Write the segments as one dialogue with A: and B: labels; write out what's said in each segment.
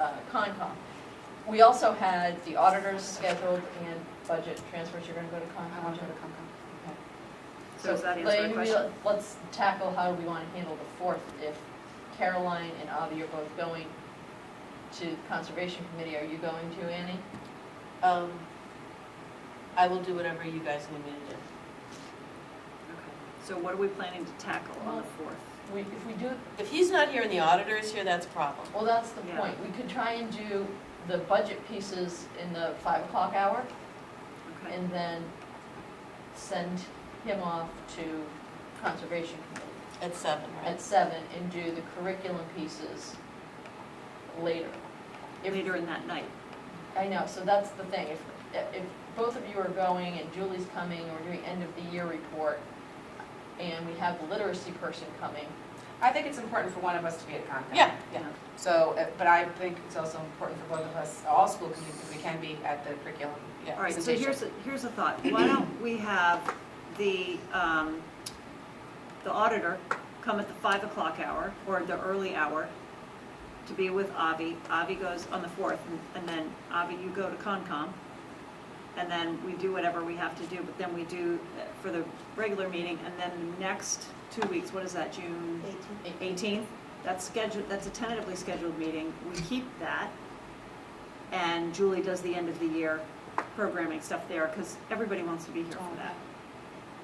A: uh, Concom. We also had the auditors scheduled and budget transfers, you're gonna go to
B: I want
A: Concom
B: to
A: too?
B: go to Concom.
A: Okay.
B: So does that answer
A: Lane,
B: the
A: we-
B: question?
A: Let's tackle how we wanna handle the fourth, if Caroline and Avi are both going to Conservation Committee, are you going to, Annie?
C: Um, I will do whatever you guys need me to do.
B: Okay. So what are we planning to tackle on the fourth?
A: We, if we do,
C: If he's not here and the auditor is here, that's a problem.
A: well, that's the
B: Yeah.
A: point, we could try and do the budget pieces in the five o'clock hour,
B: Okay.
A: and then send him off to Conservation Committee.
C: At seven, right?
A: at seven and do the curriculum pieces later. If-
B: Later in that night.
A: I know, so that's the thing, if, if both of you are going and Julie's coming, and we're doing end of the year report, and we have the literacy person coming,
D: I think it's important for one of us to be at Concom.
C: Yeah, yeah.
D: So, uh, but I think it's also important for both of us, all school committees, if we can be at the curriculum
C: Yeah.
B: All right, so
D: presentation.
B: here's, a here's a thought. Why don't we have the, um, the auditor come at the five o'clock hour or the early hour to be with Avi. Avi goes on the fourth and- and then Avi, you go to Concom. And then we do whatever we have to do, but then we do uh, for the regular meeting and then next two weeks, what is that, June? 18th, that's scheduled, that's a tentatively scheduled meeting, we keep that. And Julie does the end of the year programming stuff there, because everybody wants to be here for that.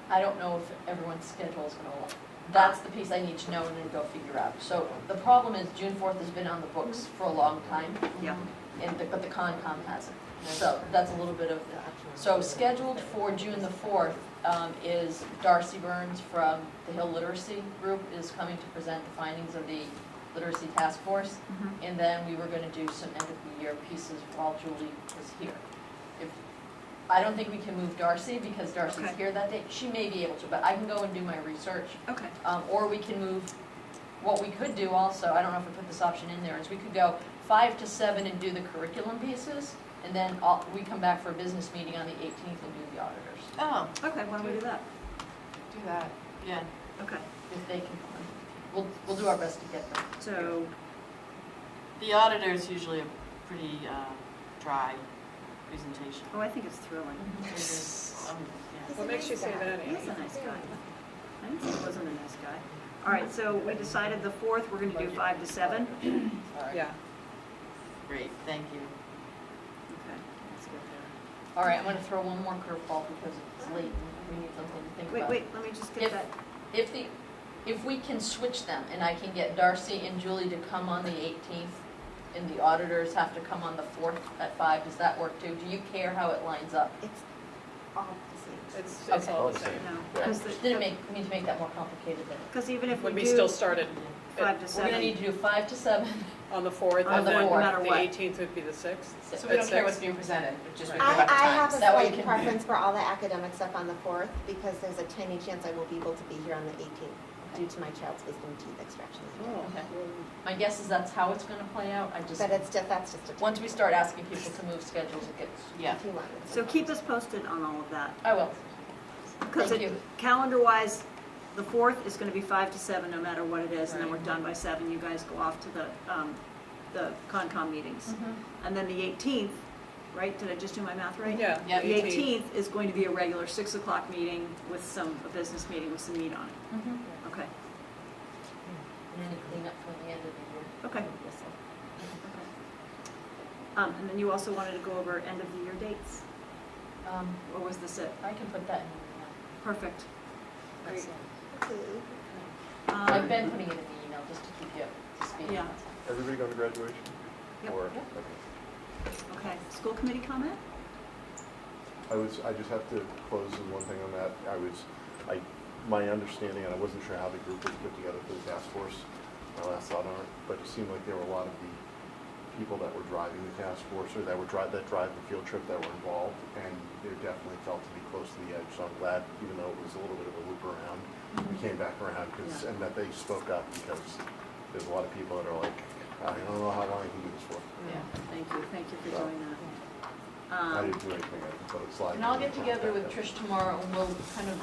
A: I don't know if everyone's schedule is gonna work. That's the piece I need to know and then go figure out. So the problem is June fourth has been on the books for a long time,
B: Yeah,
A: and, the- but the Concom hasn't. So that's a little bit of So scheduled for June the 4th um, is Darcy Burns from the Hill Literacy Group is coming to present the findings of the Literacy Task Force.
B: Mhm.
A: And then we were going to do some end-of-the-year pieces while Julie was here. If I don't think we can move Darcy because Darcy's
B: Okay.
A: here that day. She may be able to, but I can go and do my research.
B: okay.
A: Um, Or we can move, what we could do also, I don't know if we put this option in there, is we could go five to seven and do the curriculum pieces, and then all- we come back for a business meeting on the 18th and do the auditors,
C: Oh,
B: Okay, why don't we do that?
D: Do that.
C: yeah.
B: Okay,
A: if they can come in. We'll, we'll do our best to get them.
B: so,
C: The auditor is usually a pretty uh, dry presentation.
B: oh, I think it's thrilling.
C: It is, um, yeah.
E: What makes you say that,
D: Mm-hmm.
B: He is a nice guy. I didn't say he wasn't a nice guy. All right, so we decided the 4th, we're going to do 5 to 7.
A: Sorry.
E: Yeah.
C: Great, thank you.
B: Okay, let's go there.
A: All right, I'm gonna throw one more curveball because it's late and we need something to think
B: Wait,
A: about.
B: wait, let me just get
A: If-
B: that.
A: If the, if we can switch them and I can get Darcy and Julie to come on the 18th and the auditors have to come on the 4th at 5, does that work too? Do you care how it lines up?
F: It's all the same.
E: It's, it's all the
G: Okay.
E: same.
B: No,
G: Yeah.
A: Didn't make, need to make that more complicated then.
B: because even if we
E: When we
B: do
E: still started
B: 5 to
A: We're
B: 7.
A: gonna need to do five to seven.
E: on the fourth,
B: On
E: and
A: the
E: then
A: fourth, Uh, no
B: matter
E: the
B: what.
E: eighteenth would be the sixth.
D: So we don't
E: At
D: care
E: six.
D: what's being presented, but just we
E: Right.
D: care
F: I,
D: about the
F: I
D: times.
F: have a
A: That way you
F: slight
A: can-
F: preference for all the academic stuff on the fourth, because there's a tiny chance I will be able to be here on the eighteenth due to my child's wisdom teeth extraction.
A: Okay. My guess is that's how it's gonna play out. I just,
F: But it's just, that's just a.
A: once we start asking people to move schedules, it gets,
C: Yeah.
F: Too long.
B: So keep us posted on all of that.
A: I will.
B: Because
A: Thank
B: it,
A: you.
B: calendar-wise, the fourth is gonna be five to seven, no matter what it is, and then we're done by seven, you guys go off to the, um, the Concom
A: Mm.
B: meetings.
A: Mm-hmm.
B: And then the eighteenth, right, did I just do my math right?
E: Yeah.
C: Yeah,
B: The eighteenth is going to be a regular six o'clock meeting with some, a business meeting with some meat on it,
A: And
B: okay,
A: then you clean up from the end of
B: okay.
A: the year.
B: Um, and then you also wanted to go over end-of-the-year dates,
A: Um,
B: or was this it?
A: I can put that in.
B: Perfect. Great.
F: Okay.
A: I've
B: Um,
A: been putting it in the email just to keep you up to speed.
B: Yeah.
G: Everybody going to graduation?
B: Yep.
G: Or,
A: Yep.
G: okay.
B: Okay, school committee comment?
G: I was, I just have to close with one thing on that. I was, I, my understanding, and I wasn't sure how the group was put together for the task force, my last thought on it, but it seemed like there were a lot of the people that were driving the task force or that were drive, that drive the field trip that were involved, and they definitely felt to be close to the edge. So I'm glad, even though it was a little bit of a loop around, we came back around because,
B: Mm-hmm. Yeah.
G: and that they spoke up because there's a lot of people that are like, I don't know how long I can do this for.
C: Yeah.
B: Thank you, thank you for doing that.
G: I
B: Um,
G: didn't do anything, I just put a slide.
A: And I'll get together with Trish tomorrow and we'll kind of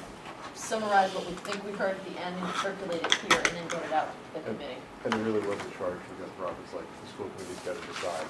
A: summarize what we think we heard at the end and circulate it here and then get it out to the committee.
G: And it really was a charge, because Robert's like, the school committee's got to decide